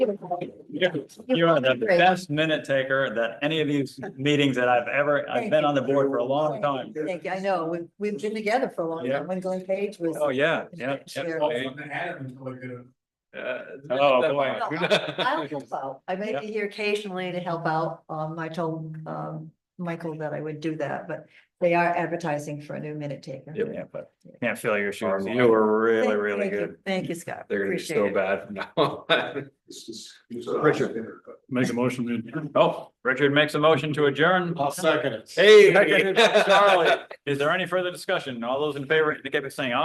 You are the best minute taker that any of these meetings that I've ever, I've been on the board for a long time. Thank you. I know, we've, we've been together for a long Yeah. time, when Glenn Page was. Oh, yeah, yeah. yeah. Chair. Oh, boy. Well, I- I'll help out. I may be here occasionally to help out. Um, I told, um, Michael that I would do that, but they are advertising for a new minute taker. Yep. Yeah, but can't fill your shoes. Awesome. You were really, Thank- really thank you. good. Thank you, Scott. They're gonna be Appreciate so it. bad from now on. Richard. Make a motion to adjourn. Oh, Richard makes a motion to adjourn. I'll second it. Hey, Richard, Charlie, is there any further discussion? All those in favor, indicate by saying aye.